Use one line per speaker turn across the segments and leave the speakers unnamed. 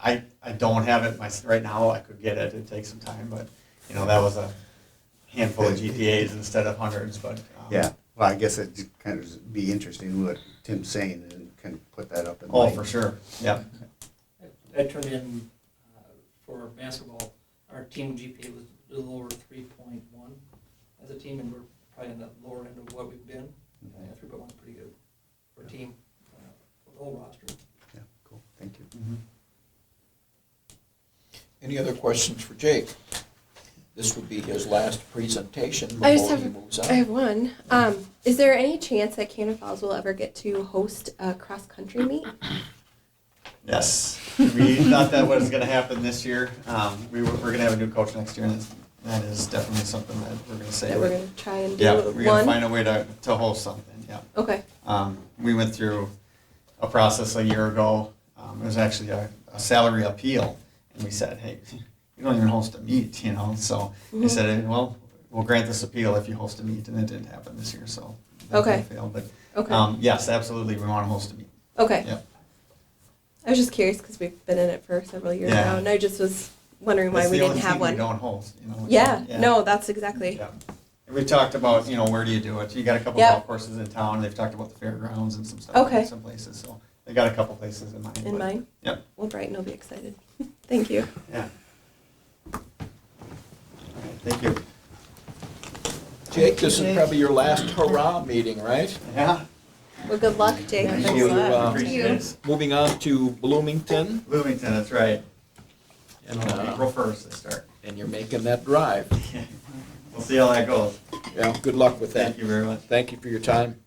I, I don't have it my, right now, I could get it, it'd take some time, but, you know, that was a handful of GTAs instead of hundreds, but. um,
Yeah, well, I guess it'd kind of be interesting what Tim's saying and kind of put that up in
Oh,
light.
for sure, yeah,
I- I turned in uh, for basketball, our team GPA was a little over three point one as a team, and we're probably in the lower end of what we've been. Uh,
Mhm.
Three point one's pretty good for a team, uh, for the whole roster.
Yeah, cool, thank you.
Any other questions for Jake? This would be his last presentation
I just
before he
have-
moves
I
on.
have one. Um, is there any chance that Cannon Falls will ever get to host a cross country meet?
yes. We thought that was gonna happen this year, um, we were, we're gonna have a new coach next year, and that's- that is definitely something that we're gonna say.
That we're gonna try and do
Yeah, we're gonna
one.
find a way to, to host something, yeah.
okay.
Um, we went through a process a year ago. Um, it was actually a, a salary appeal, and we said, "Hey, you don't even host a meet, you know." So
Mm-hmm.
they said, "Hey, "Well, we'll grant this appeal if you host a meet," and it didn't happen this year, so that
Okay.
that failed. But
Okay.
um, yes, absolutely, we want to host a meet.
okay.
yeah.
I was just curious because we've been in it for several years
Yeah.
now, and I just was wondering why
It's
we
the
didn't
only
have
thing
one.
We don't host, you know.
yeah, No, that's exactly.
Yeah. And we talked about, you know, where do you do it? You got a couple
Yep.
golf courses in town. They've talked about the fairgrounds and some stuff.
Okay.
Some places, so they got a couple places in mind.
In
but-
mind.
Yep.
Well, Brighton will be excited. Thank you.
Yeah. All right, Thank you.
Jake, this is probably your last hurrah meeting, right?
Yeah.
Well, good luck, Jake.
Thank
Thanks
you.
a lot.
Uh,
Appreciate it.
Moving on to Bloomington,
Bloomington, that's right.
and,
Uh,
uh,
April first, they start.
and you're making that drive.
We'll see how that goes.
Yeah, good luck with that.
Thank you very much.
Thank you for your time.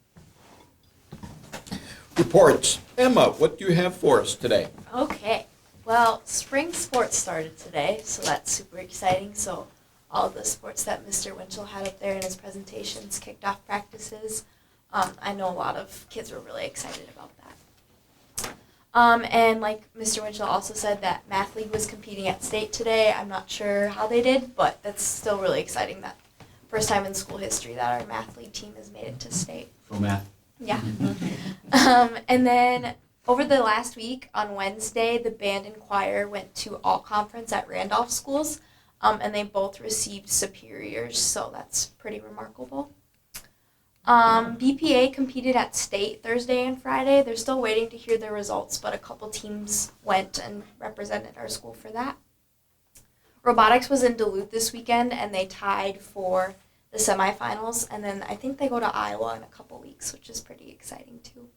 Reports. Emma, what do you have for us today?
Okay. Well, spring sports started today, so that's super exciting. So, all the sports that Mr. Winchell had up there in his presentations kicked off practices. Um, I know a lot of kids were really excited about that. Um, and like Mr. Winchell also said, that Math League was competing at state today. I'm not sure how they did, but that's still really exciting. That first time in school history that our Math League team has made it to state.
Go math.
Yeah. um, and then over the last week on Wednesday, the band and choir went to all conference at Randolph schools, um, and they both received superiors, so that's pretty remarkable. Um, BPA competed at state Thursday and Friday. They're still waiting to hear their results, but a couple teams went and represented our school for that. Robotics was in Duluth this weekend, and they tied for the semifinals, and then I think they go to Iowa in a couple weeks, which is pretty exciting too.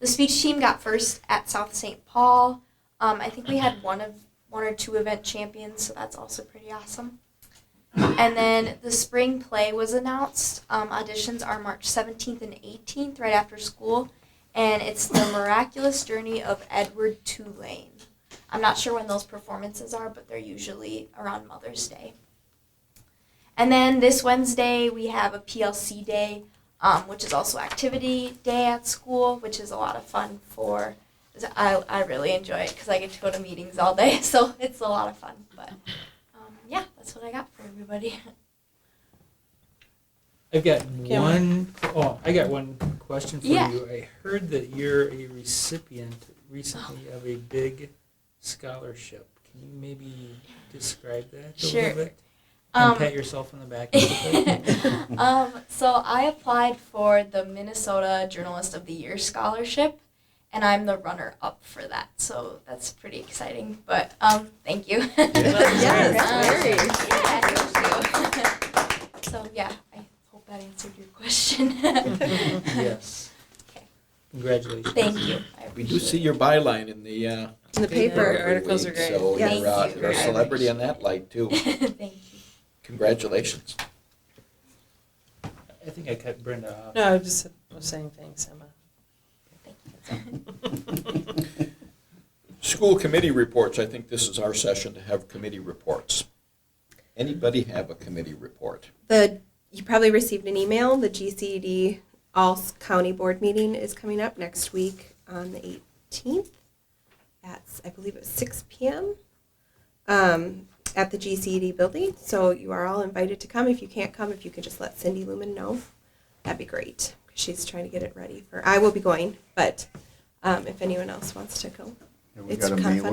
The speech team got first at South St. Paul. Um, I think we had one of one or two event champions, so that's also pretty awesome. And then the spring play was announced. Um, auditions are March 17th and 18th, right after school, and it's the miraculous journey of Edward Tulane. I'm not sure when those performances are, but they're usually around Mother's Day. And then this Wednesday, we have a PLC day, um, which is also activity day at school, which is a lot of fun for. I, I really enjoy it because I get to go to meetings all day, so it's a lot of fun. But um, yeah, that's what I got for everybody.
I've got
Kim.
one. Oh, I got one question for
Yeah.
you. I heard that you're a recipient recently of a big scholarship. Can you maybe describe that a
Sure.
little bit? And
Um,
pat yourself on the back. a little bit?
um, so I applied for the Minnesota Journalist of the Year scholarship, and I'm the runner up for that. So that's pretty exciting. But um, thank you. um,
Yes, very.
Yeah, thank you. so yeah, I hope that answered your question.
yes.
Okay.
Congratulations.
thank you. I
We do
appreciate
see
it.
your byline in the uh,
In the
paper.
paper.
every
articles
week,
are great.
So
Yes.
you're uh,
Thank you
you're a
very
celebrity
much.
in that light too.
thank you.
Congratulations.
I think I cut Brenda off.
No, I just was saying thanks, Emma.
School committee reports, I think this is our session to have committee reports. Anybody have a committee report?
The you probably received an email. The GCD All S- County Board meeting is coming up next week on the 18th. That's I believe it's 6 p.m. Um, at the GCD building. So you are all invited to come. If you can't come, if you could just let Cindy Lumen know, that'd be great. She's trying to get it ready for. I will be going, but um, if anyone else wants to go,
And we
It's
got a mailer